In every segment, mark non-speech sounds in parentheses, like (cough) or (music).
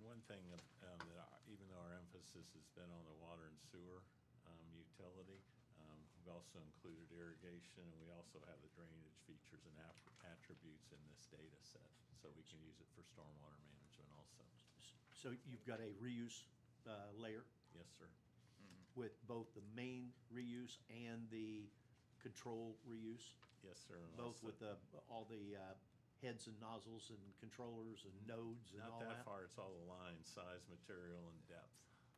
one thing that, um, that our- even though our emphasis has been on the water and sewer, um, utility, um, we've also included irrigation, and we also have the drainage features and app- attributes in this data set, so we can use it for stormwater management also. So you've got a reuse uh, layer Yes, sir. with both the main reuse and the control reuse, Yes, sir. and both also- with the, all the uh, heads and nozzles and controllers and nodes and all Not that? that far, it's all aligned, size, material, and depth.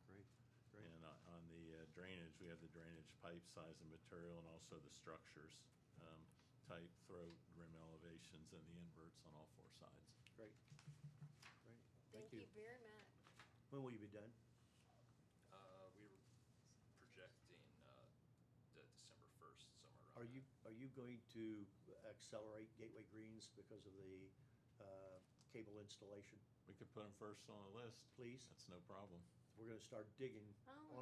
Great, great. And on- on the uh, drainage, we have the drainage pipe size and material and also the structures, um, type, throat, rim elevations, and the inverts on all four sides. Great, great. Thank you very much. When will you be done? Uh, we were projecting, uh, the December first, somewhere around Are that. you, are you going to accelerate Gateway Greens because of the uh, cable installation? We could put them first on the list. Please. That's no problem. We're gonna start digging Oh,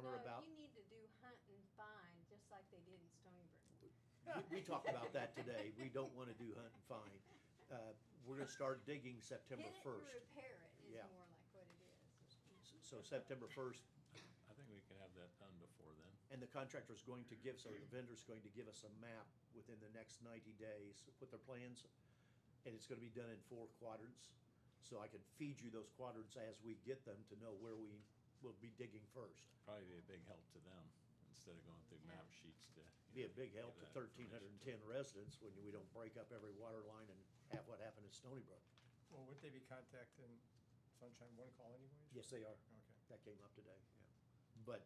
on or no, about, you need to do hunt and find, just like they did in Stony Brook. we- we talked about that today. We (laughs) don't wanna do hunt and find. Uh, We're gonna start digging September first. Hit it and repair it is Yeah. more like what it is. So September first, I think we can have that done before then. and the contractor's going to give, so the vendor's going to give us a map within the next ninety days with their plans. And it's gonna be done in four quadrants, so I can feed you those quadrants as we get them to know where we will be digging first. Probably be a big help to them instead of going through map sheets to. you Be a know, big give help to that thirteen hundred information and to them. ten residents when we don't break up every water line and have what happened in Stony Brook. Well, wouldn't they be contacting Sunshine One Call anyways? Yes, they are. Okay. That came up today, yeah. But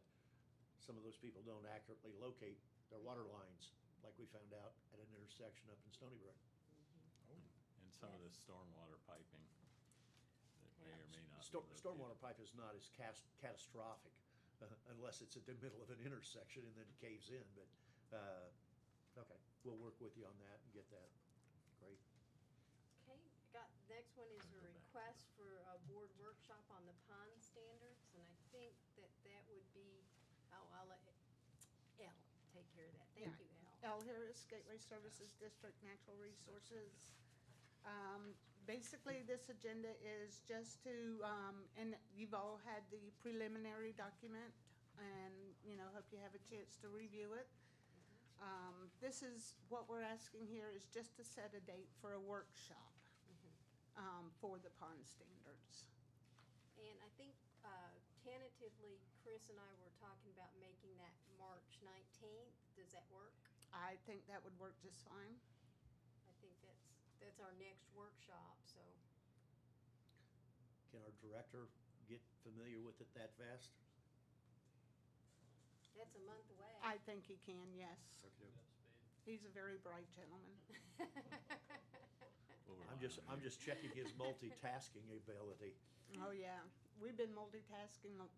some of those people don't accurately locate their water lines, like we found out at an intersection up in Stony Brook. Oh, And some of the Yes. stormwater piping that may or may not. be Storm, located. stormwater pipe is not as cas- catastrophic, uh, unless it's at the middle of an (laughs) intersection and then it caves in, but, uh, okay, we'll work with you on that and get that. Great. Okay, I got, the next one is a Go back to request for a board workshop on the pond standards, and I think that that would be, oh, I'll let Elle take care of that. Thank Yeah. you, Elle. L. Harris, Gateway Services District Natural Resources. Um, Basically, this agenda is just to, um, and you've all had the preliminary document, and, you know, hope you have a chance to review it. Um, This is, what we're asking here is just to set a date for a workshop um, for the pond standards. And I think uh, tentatively, Chris and I were talking about making that March nineteenth. Does that work? I think that would work just fine. I think that's, that's our next workshop, so. Can our director get familiar with it that fast? That's a month away. I think he can, yes. He's a very bright gentleman. We'll rely I'm just, on I'm you. just checking his multitasking ability. Oh, yeah. We've been multitasking a,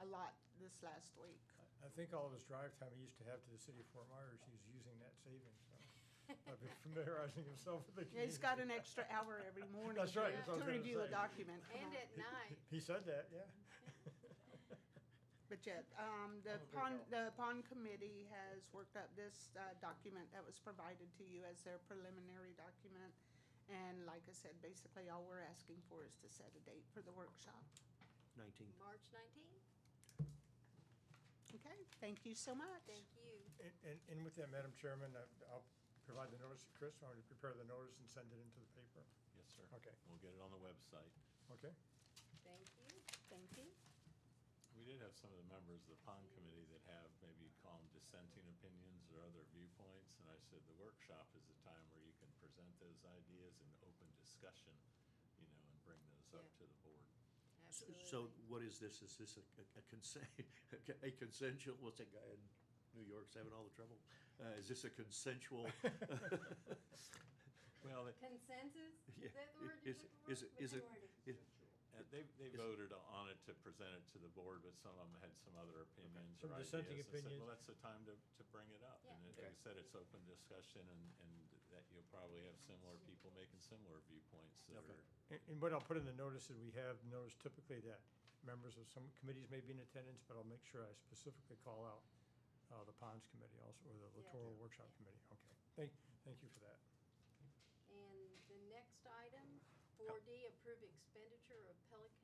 a lot this last week. I think all of his drive time he used to have to the city of Fort Myers, he's using that savings, so. (laughs) I've been (laughs) familiarizing himself with the Yeah, community. he's got an extra hour every morning. That's right, to- that's what I To was gonna review a say. document. Come And on. at night. He said that, yeah. (laughs) But yet, um, Oh, there the you pond, the pond committee has worked up this, uh, document that was provided to you as their preliminary document. And like I said, basically all we're asking for is to set a date for the workshop. Nineteen. March nineteenth, Okay, thank you so much. thank you. And, and, and with that, Madam Chairman, I- I'll provide the notice to Chris, I'm gonna prepare the notice and send it into the paper, Yes, sir. Okay. We'll get it on the website. okay? Thank you, thank you. We did have some of the members of the pond committee that have maybe you'd call them dissenting opinions or other viewpoints, and I said the workshop is a time where you can present those ideas in open discussion, you know, and bring those up to Yeah. the board. So what is this? Is this a- a consent, (laughs) a consensual, what's that guy in New York's having all the trouble? Uh, Is this a consensual? (laughs) (laughs) Well, they- Consensus, Yeah, is that the word you're is- looking for? is it- is it- Majority. is- uh, they, they Is- voted on it to present it to the board, but some of them had some other opinions Some or ideas. dissenting I said, opinions. Well, that's the time to, to bring it up. Yeah. And it- like I said, it's open discussion and, and that you'll probably have similar people making similar viewpoints that Okay. are And, and what I'll put in the notice that we have, notice typically that members of some committees may be in attendance, but I'll make sure I specifically call out, uh, the ponds committee also, or Yeah. the littoral workshop Yeah. committee, okay. Thank, thank you for that. And the next item, four D, approve expenditure of Pelican